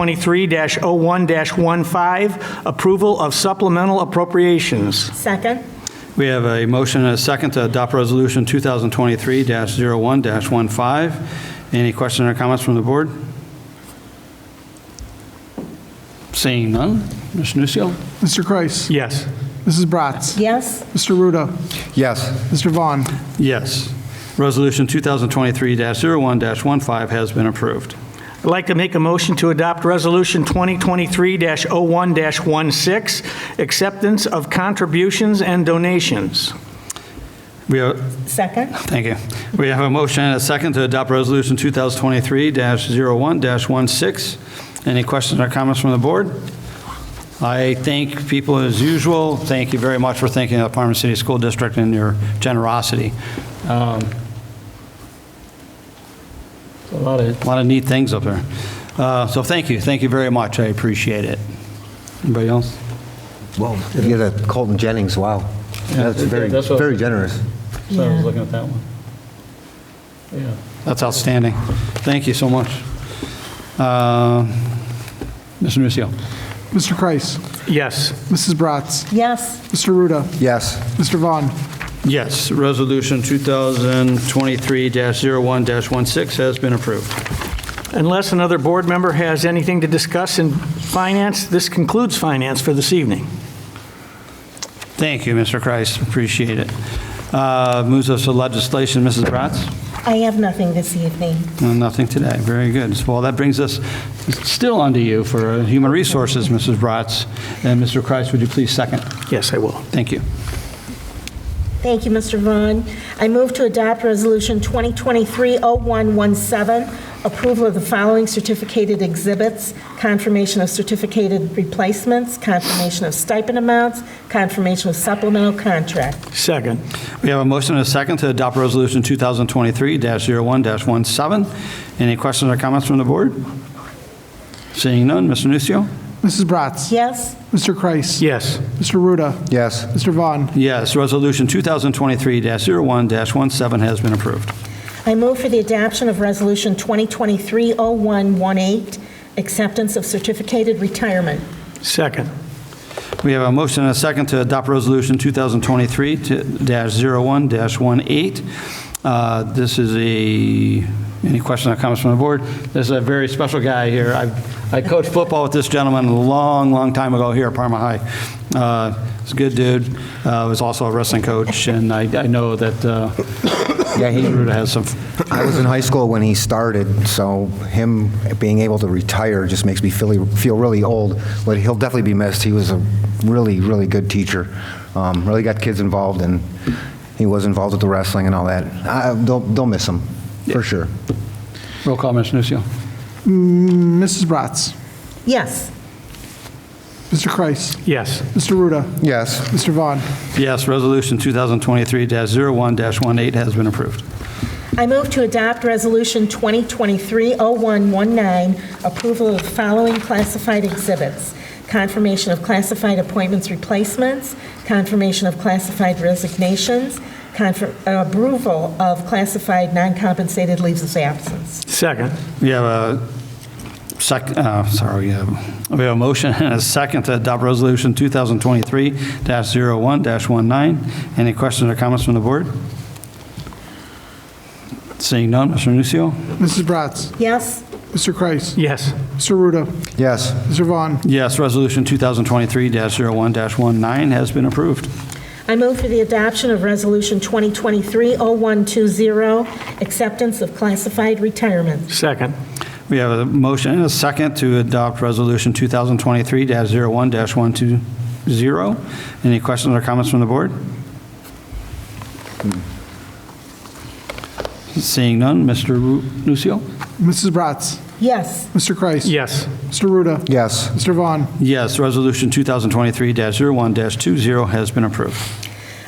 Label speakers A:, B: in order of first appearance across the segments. A: 23-01-15, approval of supplemental appropriations.
B: Second.
C: We have a motion and a second to adopt Resolution 2023-01-15. Any questions or comments from the board? Seeing none, Mr. Nucio.
D: Mr. Kreis.
A: Yes.
D: Mrs. Bratz.
B: Yes.
D: Mr. Ruda.
E: Yes.
D: Mr. Vaughn.
C: Yes. Resolution 2023-01-15 has been approved.
A: I'd like to make a motion to adopt Resolution 2023-01-16, acceptance of contributions and donations.
C: We have,
B: Second.
C: thank you. We have a motion and a second to adopt Resolution 2023-01-16. Any questions or comments from the board? I thank people as usual. Thank you very much for thanking the Parma City School District and your generosity. Um, A lot of... neat things up there. Uh, So thank you, thank you very much. I appreciate it. Anybody else?
E: Well, if you had a Colton Jennings, wow. That's very,
C: that's what-
E: very generous.
C: So I was looking at that one. Yeah. That's outstanding. Thank you so much. Uh, Mr. Nucio.
D: Mr. Kreis.
A: Yes.
D: Mrs. Bratz.
B: Yes.
D: Mr. Ruda.
E: Yes.
D: Mr. Vaughn.
C: Yes, Resolution 2023-01-16 has been approved.
A: Unless another board member has anything to discuss in finance, this concludes finance for this evening.
C: Thank you, Mr. Kreis, appreciate it. Uh, Moves us to legislation, Mrs. Bratz?
B: I have nothing this evening.
C: No, Nothing today, very good. So, Well, that brings us still onto you for uh, Human Resources, Mrs. Bratz. And Mr. Kreis, would you please second?
A: Yes, I will.
C: Thank you.
B: Thank you, Mr. Vaughn. I move to adopt Resolution 2023-0117, approval of the following certificated exhibits, confirmation of certificated replacements, confirmation of stipend amounts, confirmation of supplemental contract.
A: Second.
C: We have a motion and a second to adopt Resolution 2023-01-17. Any questions or comments from the board? Seeing none, Mr. Nucio?
D: Mrs. Bratz.
B: Yes.
D: Mr. Kreis.
A: Yes.
D: Mr. Ruda.
E: Yes.
D: Mr. Vaughn.
C: Yes, Resolution 2023-01-17 has been approved.
B: I move for the adoption of Resolution 2023-0118, acceptance of certificated retirement.
A: Second.
C: We have a motion and a second to adopt Resolution 2023-01-18. Uh, This is a, any questions or comments from the board? This is a very special guy here. I- I coached football with this gentleman a long, long time ago here at Parma High. Uh, He's a good dude, Uh, was also a wrestling coach, and I I know that uh,
E: Yeah, he-
C: Ruda has some,
E: I was in high school when he started, so him being able to retire just makes me feel, feel really old. But he'll definitely be missed. He was a really, really good teacher. Um, really got kids involved, and he was involved with the wrestling and all that. I, they'll, they'll miss him, for sure.
C: roll call, Mr. Nucio.
D: Mrs. Bratz.
B: Yes.
D: Mr. Kreis.
A: Yes.
D: Mr. Ruda.
E: Yes.
D: Mr. Vaughn.
C: Yes, Resolution 2023-01-18 has been approved.
B: I move to adopt Resolution 2023-0119, approval of the following classified exhibits: confirmation of classified appointments replacements, confirmation of classified resignations, confir- approval of classified non-compensated leaves of absence.
A: Second.
C: We have a sec, uh, sorry, we have, we have a motion and a second to adopt resolution 2023-01-19. Any questions or comments from the board? Seeing none, Mr. Nucio?
D: Mrs. Bratz.
B: Yes?
D: Mr. Kreis.
A: Yes.
D: Mr. Ruda.
E: Yes.
D: Mr. Vaughn.
C: Yes, resolution 2023-01-19 has been approved.
B: I move for the adoption of Resolution 2023-0120, acceptance of classified retirements.
A: Second.
C: We have a motion and a second to adopt resolution 2023-01-120. Any questions or comments from the board? Seeing none, Mr. Ru- Nucio?
D: Mrs. Bratz.
B: Yes.
D: Mr. Kreis.
A: Yes.
D: Mr. Ruda.
E: Yes.
D: Mr. Vaughn.
C: Yes, resolution 2023-01-20 has been approved.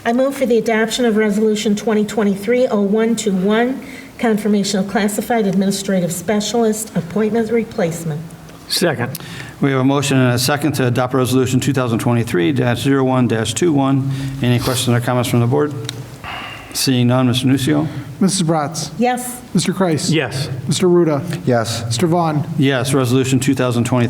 B: I move for the adoption of Resolution 2023-0121, confirmation of classified administrative specialist appointment replacement.
A: Second.
C: We have a motion and a second to adopt resolution 2023-01-21. Any questions or comments from the board? Seeing none, Mr. Nucio.
D: Mrs. Bratz.
B: Yes.
D: Mr. Kreis.
A: Yes.
D: Mr. Ruda.
E: Yes.
D: Mr. Vaughn.
C: Yes, Resolution 2020